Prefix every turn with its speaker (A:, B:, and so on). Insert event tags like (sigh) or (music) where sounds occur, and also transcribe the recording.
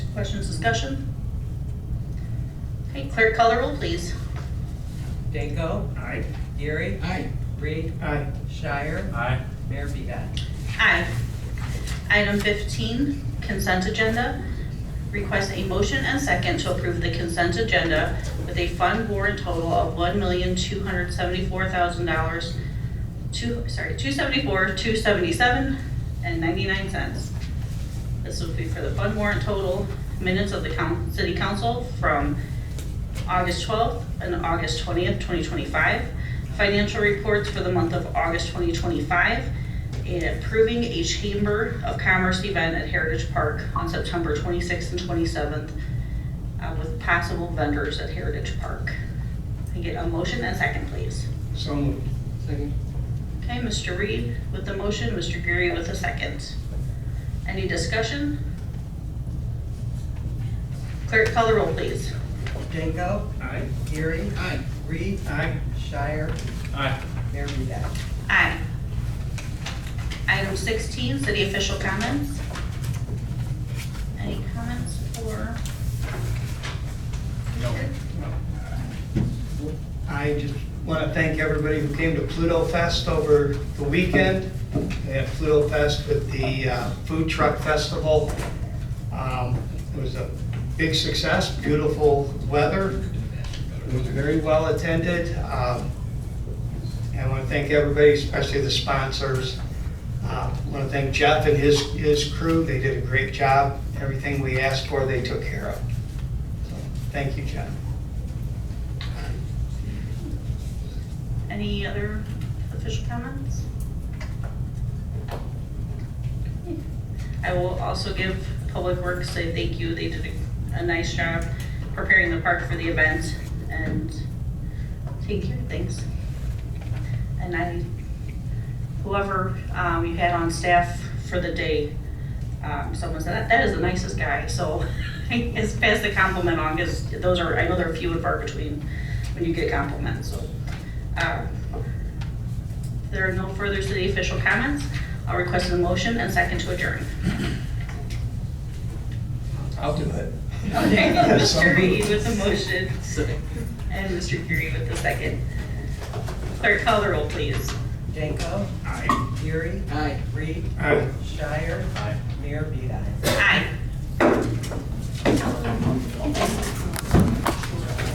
A: Questions, discussion? Okay, clerk color roll, please.
B: Danko,
C: Aye.
B: Gary,
D: Aye.
B: Reed,
C: Aye.
B: Shire,
C: Aye.
B: Mayor Beat.
A: Aye. Item 15, consent agenda. Request a motion and second to approve the consent agenda with a fund warrant total of $1,274,000, two, sorry, 274, 277 and 99 cents. This will be for the fund warrant total, minutes of the coun- city council from August 12th and August 20th, 2025. Financial reports for the month of August 2025. And approving a Chamber of Commerce event at Heritage Park on September 26th and 27th uh, with possible vendors at Heritage Park. Can I get a motion and second, please?
D: So moved. Second.
A: Okay, Mr. Reed with the motion, Mr. Gary with the second. Any discussion? Clerk, call the roll, please.
B: Danko,
C: Aye.
B: Gary,
D: Aye.
B: Reed,
C: Aye.
B: Shire,
C: Aye.
B: Mayor Beat.
A: Aye. Item 16, city official comments. Any comments for?
C: No.
E: I just want to thank everybody who came to Pluto Fest over the weekend. They had Pluto Fest with the uh, Food Truck Festival. Um, It was a big success, beautiful weather. It was very well attended. Um, and I want to thank everybody, especially the sponsors. Uh, I want to thank Jeff and his, his crew. They did a great job. Everything we asked for, they took care of. So, Thank you, Jeff.
A: Any other official comments? I will also give Public Works a thank you. They did a- a nice job preparing the park for the event and taking care of things. And I, whoever um, you had on staff for the day, um, someone said, "That- that is the nicest guy. So (laughs) it's past the compliment on, because those are, I know they're few and far between when you get compliments, so. Um, if There are no further city official comments. I'll request a motion and second to adjourn.
E: I'll do it.
A: Okay,
E: So
A: Mr.
E: moved.
A: Reed with the motion and Mr. Curie with the second. Clerk, call the roll, please.
B: Danko,
C: Aye.
B: Gary,
D: Aye.
B: Reed,
E: Aye.
B: Shire,
C: Aye.
B: Mayor Beat.
A: Aye.